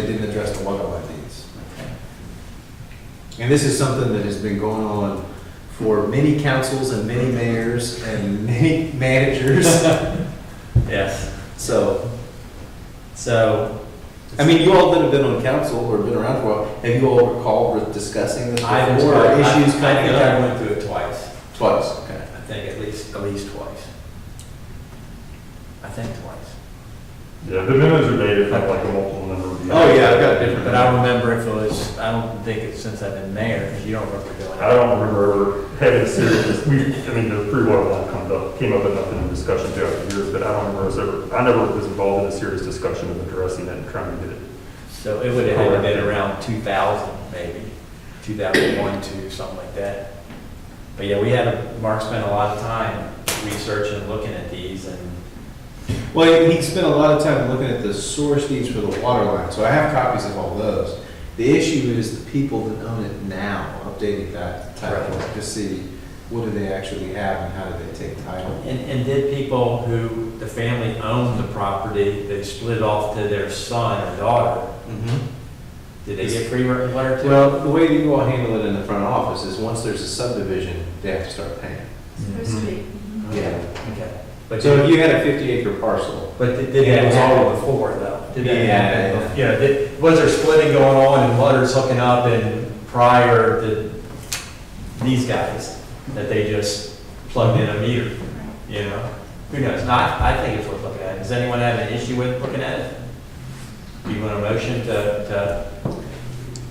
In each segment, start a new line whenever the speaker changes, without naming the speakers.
They didn't address the water line needs.
And this is something that has been going on for many councils and many mayors and many managers.
Yes.
So,
So
I mean, you all that have been on council or been around for a while, have you all recalled discussing this
I
before? or
I-
Issues
I think I
coming up?
went through it twice.
Twice, okay.
I think at least at least twice. I think twice.
Yeah, the minutes are dated from like a multiple number of years.
Oh, But I remember if it was. I don't think it's since I've been mayor. 'cause You don't remember doing
I don't remember having serious, we, I mean, the free water line comes up, came up enough in a discussion throughout the years, but I don't remember, us ever. I never was involved in a serious discussion of addressing it and trying to get it.
So it would have had to been around 2000, maybe, 2001, two, something like that. But yeah, we had, a- Mark spent a lot of time researching, looking at these, and
Well, he he spent a lot of time looking at the source needs for the water line, so I have copies of all those. The issue is the people that own it now, updating that title
Right.
to see what do they actually have and how do they take title.
And, and did people who, the family owned the property, they split off to their son or daughter, did they get free wa- water too?
Well, the way that you all handle it in the front office is once there's a subdivision, they have to start paying.
Supposed to be.
Yeah.
Mm-hmm. Okay. But
So if
did,
you had a fifty acre parcel,
but did did
Yeah,
that
it was all-
happen before though? Did that
Yeah,
happen? bef- Yeah, did, was there splitting going on and waters hooking up and prior to these guys, that they just plugged in a meter, you know? Who knows? Not, I think it's worth looking at. Does anyone have an issue with looking at it? Do you want a motion to, to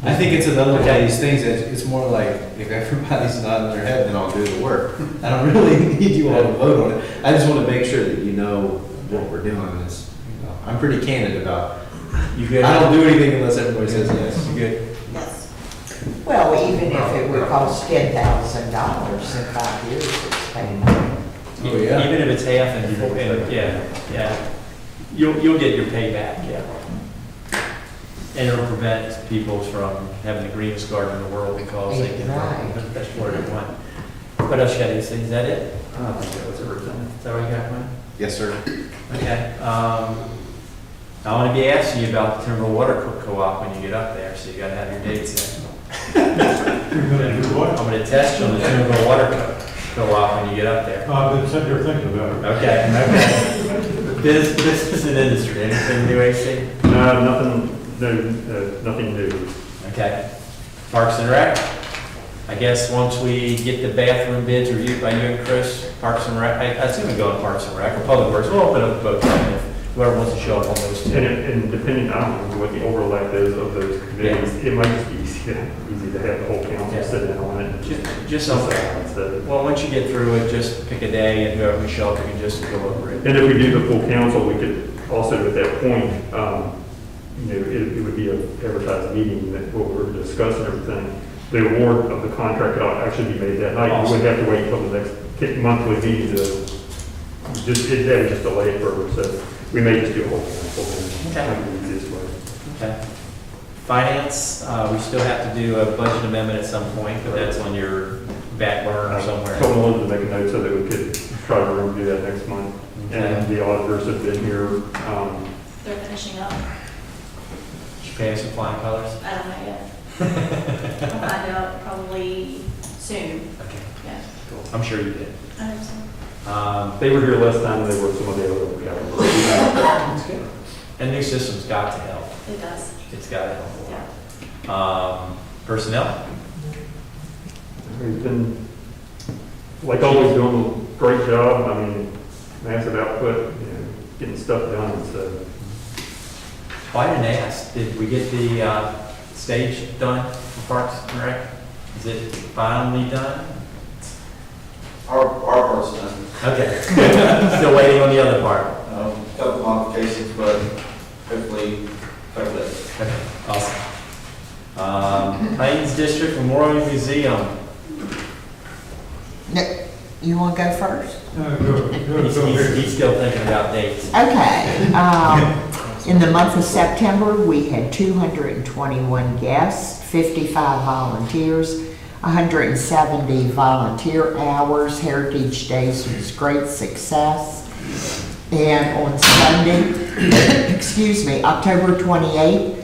I think it's another one of
Okay.
these things that it's more like, if everybody's nodding their head, then I'll do the work. I don't really need you all to vote on it. I just want to make sure that you know what we're doing on this. you know. I'm pretty candid about,
You
I
good?
don't do anything unless everybody says yes.
You good?
Yes.
Well, even if it would cost ten thousand dollars in five years, it's paying.
Oh, yeah.
Even if it's half and, you- and, yeah, yeah. You'll, you'll get your payback, yeah. And it'll prevent people from having the greenest garden in the world because they can,
Right.
that's what they want. What else should I say? Is that it? I don't think that was everything. Is that what you got, Mike?
Yes, sir.
Okay, um, I want to be asking you about the Timber Water Co- Co-op when you get up there, so you gotta have your dates in. I'm gonna test you on the Timber Water Co- Co-op when you get up there.
I've been sitting here thinking about
Okay, okay. This, this is an industry, anything new, AC?
No, nothing, no, uh, nothing new.
Okay. Parks and Rec? I guess once we get the bathroom bids reviewed by you and Chris, Parks and Rec, I I assume we go on Parks and Rec, or Public Works, we'll open up both, if whoever wants to show up on those
And,
two.
it- and depending on what the overlap is of those committees, it might just be easy, to- easy to have the whole
Yeah.
council sit down on it. and
Ju-
just-
Just something.
Instead of-
Well, once you get through it, just pick a day, and whoever we show up, we can just go over it.
And if we do the full council, we could also at that point, um, you know, it, it would be a advertised meeting that what we're discussing everything. The award of the contract could actually be made that night. You wouldn't have to wait until the next ki- monthly meeting to, just, it, that would just delay it further. So we may just do a whole council. then.
Okay.
Might be the easiest way.
Okay. Finance, uh, we still have to do a budget amendment at some point, but that's on your back burner somewhere.
Told Melinda to make a note so that we could try to review that next month.
Okay.
And the auditors have been here, um,
They're finishing up.
Should pay us in flying colors.
I don't know yet. I'll find out probably soon.
Okay,
Yeah.
cool. I'm sure you did.
I hope so.
Um,
they were here last time, and they were some of the other categories.
And new system's got to help.
It does.
It's got to
Yeah.
help. a lot. Um, Personnel?
He's been, like always, doing a great job, I mean, massive output, you know, getting stuff done, so.
Oh, I didn't ask, did we get the uh, stage done for Parks and Rec? Is it finally done?
Our, our part's done.
Okay. Still waiting on the other part.
Um, Couple modifications, but hopefully, hopefully.
Okay, Awesome. Um, Plains District Memorial Museum.
No, You want to go first?
He's, he's- he's still thinking about dates.
Okay, um, in the month of September, we had two hundred and twenty-one guests, fifty-five volunteers, hundred and seventy volunteer hours. Heritage Days was great success. And on Sunday, excuse me, October twenty-eighth,